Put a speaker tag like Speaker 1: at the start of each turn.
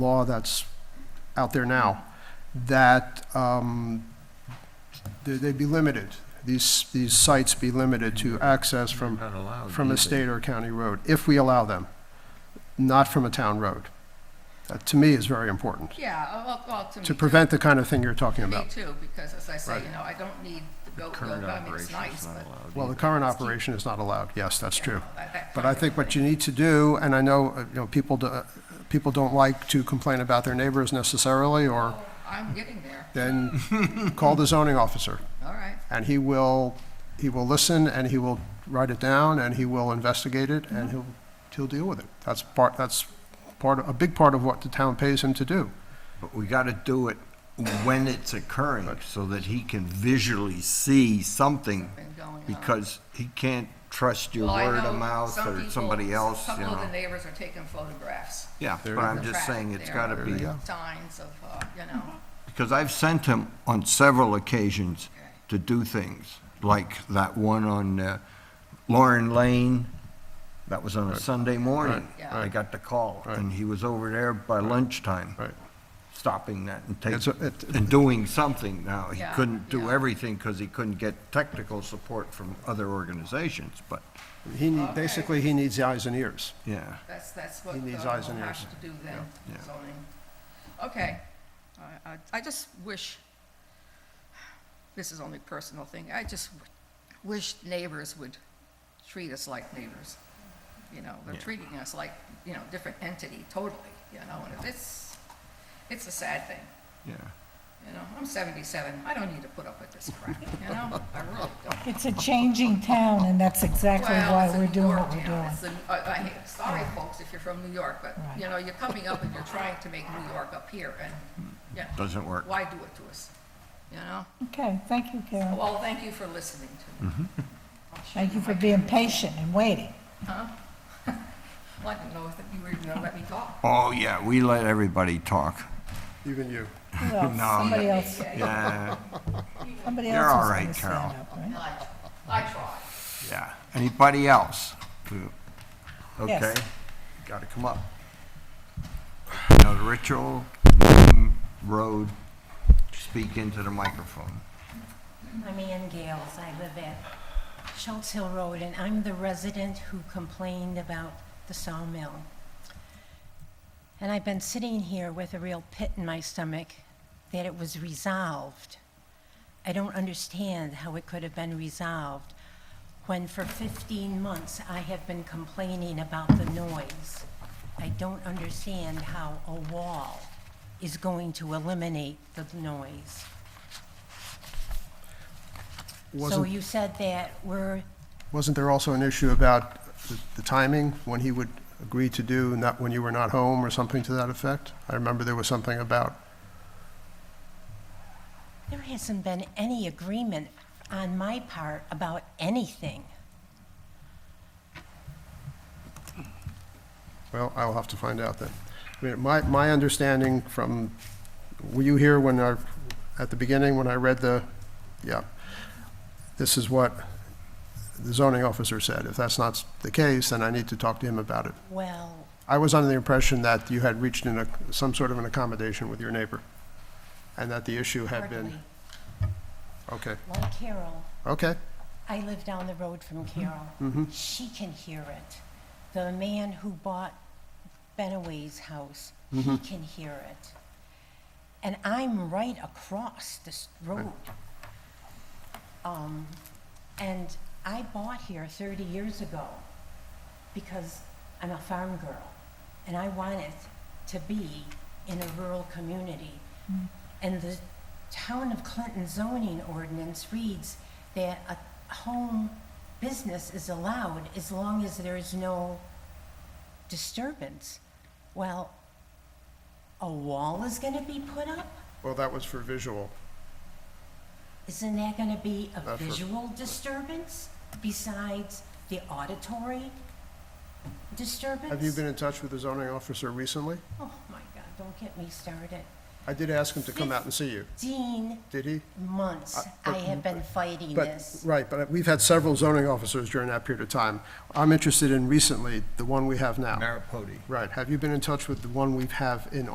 Speaker 1: law that's out there now, that um, they- they'd be limited, these, these sites be limited to access from,
Speaker 2: Not allowed
Speaker 1: from a
Speaker 2: either.
Speaker 1: state or county road, if we allow them, not from a town road. That, to me, is very important,
Speaker 3: Yeah, oh, well, well, to me.
Speaker 1: to
Speaker 3: too.
Speaker 1: prevent the kind of thing you're talking
Speaker 3: Me
Speaker 1: about.
Speaker 3: too, because as I say,
Speaker 1: Right.
Speaker 3: you know, I don't need the
Speaker 2: The
Speaker 3: goat, goat,
Speaker 2: Current
Speaker 3: I mean, it's
Speaker 2: operation is
Speaker 3: nice,
Speaker 2: not
Speaker 3: but.
Speaker 2: allowed.
Speaker 1: Well, the
Speaker 2: either.
Speaker 1: current operation is not allowed, yes, that's true.
Speaker 3: that- that
Speaker 1: But I think what you need to do, and I know, uh, you know, people, do- uh, people don't like to complain about their neighbors necessarily, or
Speaker 3: Oh, I'm getting there,
Speaker 1: then call the zoning officer.
Speaker 3: all right,
Speaker 1: and he will, he will listen, and he will write it down, and he will investigate it, and he'll, he'll deal with it. That's part, that's part, a big part of what the town pays him to do.
Speaker 4: But we gotta do it when it's occurring, so that he can visually see something,
Speaker 3: been going on.
Speaker 4: because he can't trust your
Speaker 3: Well, I
Speaker 4: word
Speaker 3: know
Speaker 4: of mouth
Speaker 3: some
Speaker 4: or
Speaker 3: people-
Speaker 4: somebody else,
Speaker 3: A
Speaker 4: you
Speaker 3: couple of the
Speaker 4: know.
Speaker 3: neighbors are taking photographs,
Speaker 4: Yeah,
Speaker 1: There
Speaker 4: but
Speaker 1: you
Speaker 4: I'm
Speaker 1: go.
Speaker 4: just saying it's gotta
Speaker 3: There
Speaker 1: you
Speaker 4: be,
Speaker 1: go.
Speaker 3: signs of, uh, you know,
Speaker 4: because I've sent him on several occasions to do things, like that one on uh, Lauren Lane, that was on a Sunday morning.
Speaker 3: Yeah.
Speaker 4: I got the call,
Speaker 1: Right.
Speaker 4: and he was over there by lunchtime.
Speaker 1: Right.
Speaker 4: stopping that and
Speaker 1: It's a-
Speaker 4: taking,
Speaker 1: it-
Speaker 4: and doing something now. He
Speaker 3: Yeah,
Speaker 4: couldn't do
Speaker 3: yeah.
Speaker 4: everything because he couldn't get technical support from other organizations, but,
Speaker 1: He, need-
Speaker 3: Okay.
Speaker 1: basically, he needs the eyes and ears.
Speaker 4: yeah.
Speaker 3: that's, that's what uh,
Speaker 1: He
Speaker 3: we'll
Speaker 1: needs eyes and ears.
Speaker 3: have to do then,
Speaker 4: Yeah, yeah.
Speaker 3: zoning. Okay, I, I, I just wish, this is only personal thing, I just w- wish neighbors would treat us like neighbors. You know, they're
Speaker 4: Yeah.
Speaker 3: treating us like, you know, different entity totally, you know, and it's, it's a sad thing.
Speaker 4: Yeah.
Speaker 3: You know, I'm 77, I don't need to put up with this crap, you know, I really don't.
Speaker 5: It's a changing town, and that's exactly
Speaker 3: Well,
Speaker 5: why
Speaker 3: it's a
Speaker 5: we're
Speaker 3: New
Speaker 5: doing
Speaker 3: York
Speaker 5: what we're
Speaker 3: town.
Speaker 5: doing.
Speaker 3: It's a- I- I hate- Sorry, folks, if you're from New York, but, you know, you're coming up and you're trying to make New York up here, and, yeah.
Speaker 4: Hmm. Doesn't work.
Speaker 3: Why do it to us, you know?
Speaker 5: Okay, thank you, Karen.
Speaker 3: Well, thank you for listening to me.
Speaker 4: Mm-hmm.
Speaker 3: I'll show
Speaker 5: Thank you for
Speaker 3: my-
Speaker 5: being patient and waiting.
Speaker 3: Well, I didn't know if you were even gonna let me talk.
Speaker 4: Oh, yeah, we let everybody talk.
Speaker 1: Even you.
Speaker 5: Who else? Somebody else,
Speaker 4: Yeah,
Speaker 5: somebody
Speaker 4: You're
Speaker 5: else
Speaker 4: all
Speaker 5: is
Speaker 4: right,
Speaker 5: gonna stand
Speaker 4: Carol.
Speaker 5: up, right?
Speaker 3: I I tried.
Speaker 4: yeah. Anybody else?
Speaker 5: Yes.
Speaker 4: Okay, gotta come up. Now, the ritual, name, road, speak into the microphone.
Speaker 6: I'm Ann Gales. I live at Schultz Hill Road, and I'm the resident who complained about the sawmill. And I've been sitting here with a real pit in my stomach that it was resolved. I don't understand how it could have been resolved when for 15 months I have been complaining about the noise. I don't understand how a wall is going to eliminate the noise. So
Speaker 1: Wasn't,
Speaker 6: you said that we're,
Speaker 1: wasn't there also an issue about the- the timing, when he would agree to do, not when you were not home, or something to that effect? I remember there was something about,
Speaker 6: there hasn't been any agreement on my part about anything.
Speaker 1: well, I'll have to find out then. I mean, my, my understanding from, were you here when I, at the beginning, when I read the, yeah, this is what the zoning officer said. If that's not the case, then I need to talk to him about it.
Speaker 6: Well,
Speaker 1: I was under the impression that you had reached in a, some sort of an accommodation with your neighbor, and that the issue had
Speaker 6: hardly.
Speaker 1: been, okay,
Speaker 6: Like Carol,
Speaker 1: okay,
Speaker 6: I live down the road from Carol. She can hear it. The man who bought Benaway's house, he can hear it. And I'm right across this road. Um, and I bought here thirty years ago because I'm a farm girl and I wanted to be in a rural community. And the town of Clinton zoning ordinance reads that a home business is allowed as long as there is no disturbance. Well, a wall is gonna be put up?
Speaker 1: well, that was for visual.
Speaker 6: Isn't that gonna be a
Speaker 1: That's for-
Speaker 6: visual disturbance besides the auditory disturbance?
Speaker 1: Have you been in touch with the zoning officer recently?
Speaker 6: Oh, my God, don't get me started.
Speaker 1: I did ask him to come out and see you,
Speaker 6: Dean,
Speaker 1: did he?
Speaker 6: months I have been fighting
Speaker 1: But,
Speaker 6: this.
Speaker 1: right, but we've had several zoning officers during that period of time. I'm interested in recently, the one we have now.
Speaker 4: Maripodi.
Speaker 1: Right, have you been in touch with the one we have in